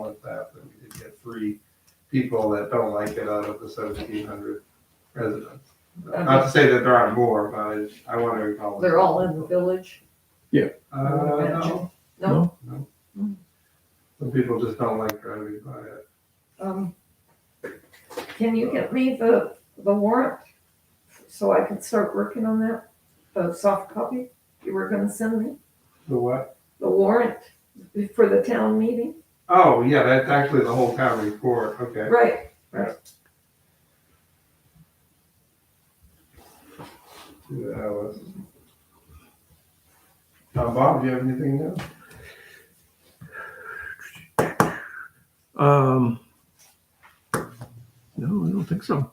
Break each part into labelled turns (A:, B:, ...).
A: month after we did get three people that don't like it out of the seventeen hundred residents. Not to say that there aren't more, but I, I want to acknowledge.
B: They're all in the village?
A: Uh, no,
B: No?
A: some people just don't like driving by it.
B: Um, Can you get me the, the warrant so I can start working on that? The soft copy you were gonna send me,
A: The what?
B: the warrant for the town meeting?
A: Oh, yeah, that's actually the whole town report, okay.
B: Right,
A: Two hours. Now, Bob, do you have anything new?
C: Um, no, I don't think so.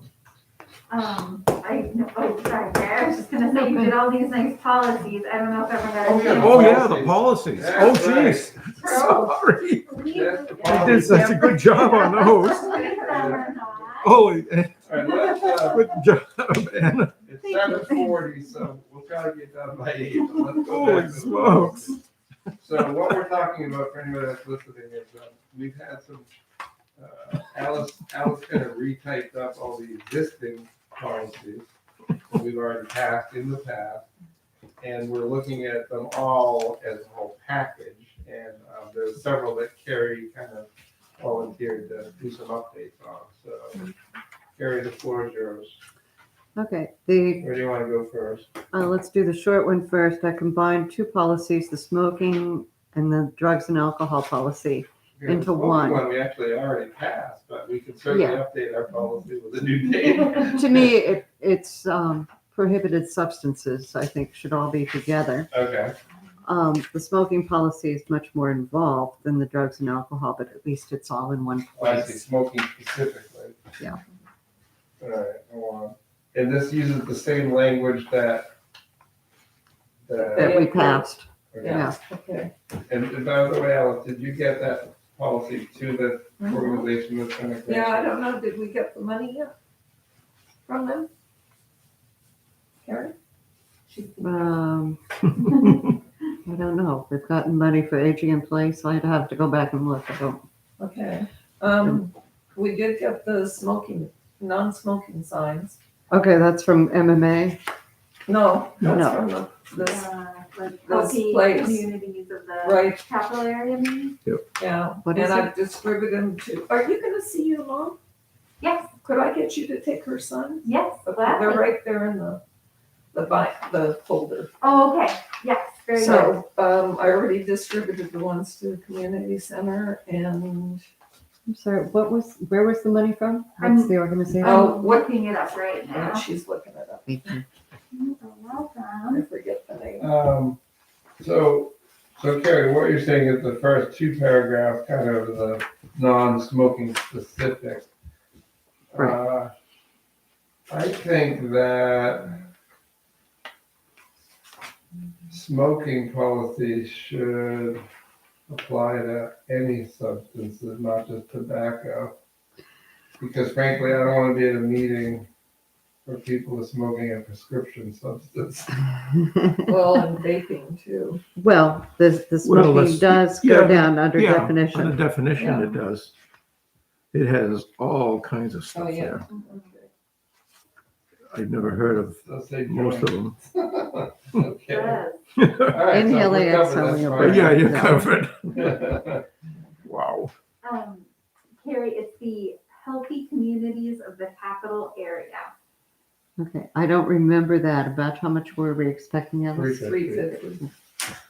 D: Um, I, no, oh, sorry, Barry, I was just gonna say, you did all these nice policies, I don't know if everyone got.
A: Oh, yeah.
C: Oh, yeah, the policies. Oh,
A: That's
C: jeez. Sorry.
A: That's the
C: I
A: policy.
C: did such a good job on those. Holy,
A: All right, let's, uh,
C: good job, Anna.
A: It's seven forty, so we'll try to get done by eight. but let's go back
C: Holy
A: to the-
C: smokes.
A: So what we're talking about for anybody that's listening is um, we've had some, uh, Alice, Alice kind of retyped up all the existing policies that we've already passed in the past. And we're looking at them all as a whole package. And um, there's several that Carrie kind of volunteered to do some updates on. So Carrie, the floor is yours.
E: Okay, the,
A: Where do you want to go first?
E: uh, let's do the short one first. I combined two policies, the smoking and the drugs and alcohol policy.
A: Yeah,
E: into
A: the smoking
E: one.
A: One we actually already passed, but we can certainly
E: Yeah.
A: update our policy with a new date.
E: To me, it, it's, um, prohibited substances, I think, should all be together.
A: Okay,
E: Um, the smoking policy is much more involved than the drugs and alcohol, but at least it's all in one
A: well, I see
E: place.
A: smoking specifically.
E: Yeah.
A: All right, go on. And this uses the same language that.
E: That
A: that-
E: we passed,
A: okay.
E: yeah.
B: okay.
A: And and by the way, Alice, did you get that policy to
E: Mm-hmm.
A: the organization that's gonna?
B: Yeah, I don't know, did we get the money yet from them? Karen? She's
E: Um, I don't know. They've gotten money for aging in place. I'd have to go back and look. I don't,
B: Okay, um, we did get the smoking, non-smoking signs.
E: okay, that's from MMA.
B: No, that's
E: No.
B: from the, this, Those
D: Like, healthy
B: plates.
D: communities of the
B: right,
D: capital area, maybe?
B: yeah,
E: What
B: and
E: is
B: I've distributed them to, are you gonna see your mom?
D: Yes,
B: Could I get you to take her son?
D: yes,
B: Okay, They're
D: gladly.
B: right there in the, the bi, the folder.
D: Oh, okay, yes, very good.
B: So, um, I already distributed the ones to the community center and,
E: I'm sorry, what was, where was the money from?
D: What's
E: the organization?
B: Oh.
D: I'm looking it up right now.
B: and she's looking it up.
D: You're welcome.
B: I forget the name.
A: Um, so, so Carrie, what you're saying is the first two paragraphs kind of the non-smoking specific. Uh, I think that smoking policy should apply to any substances, not just tobacco. Because frankly, I don't want to be at a meeting where people are smoking a prescription substance.
E: um,
B: Well, and vaping too.
E: Well, the, the
C: Well,
E: smoking
C: let's-
E: does
C: yeah,
E: go down under
C: yeah, On the
E: definition.
C: definition, it does. It has all kinds of
B: Oh,
C: stuff
B: yeah.
C: there. I've never heard of
A: So say
C: most of them.
A: Okay.
D: Good.
C: But
A: All right, so
E: Inhale,
A: we're covered,
E: exhale,
A: that's
E: you're
A: fine.
C: yeah, you're
E: No.
C: covered. Wow.
D: Um, Carrie, it's the healthy communities of the capital area.
E: Okay, I don't remember that. About how much were we expecting of us?
B: Three fifty.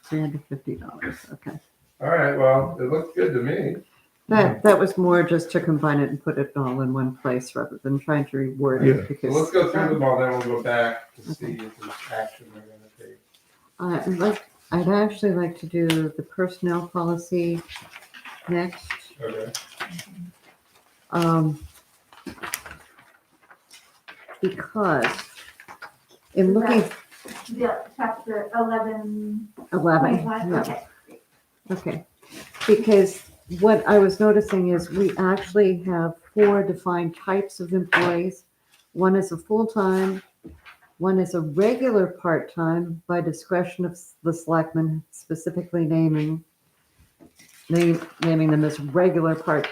E: Three hundred fifty dollars, okay.
A: All right, well, it looks good to me.
E: That, that was more just to combine it and put it all in one place rather than trying to reword
C: Yeah.
E: it
A: So let's
E: because
A: go through them all, then we'll go back to see if there's action we're gonna take.
E: I like, I'd actually like to do the personnel policy next.
A: Okay,
E: Um, because in looking
D: The chapter eleven
E: eleven,
D: point one,
E: yeah.
D: okay.
E: Okay, because what I was noticing is we actually have four defined types of employees. One is a full-time, one is a regular part-time by discretion of the selectmen specifically naming. name- naming them as regular part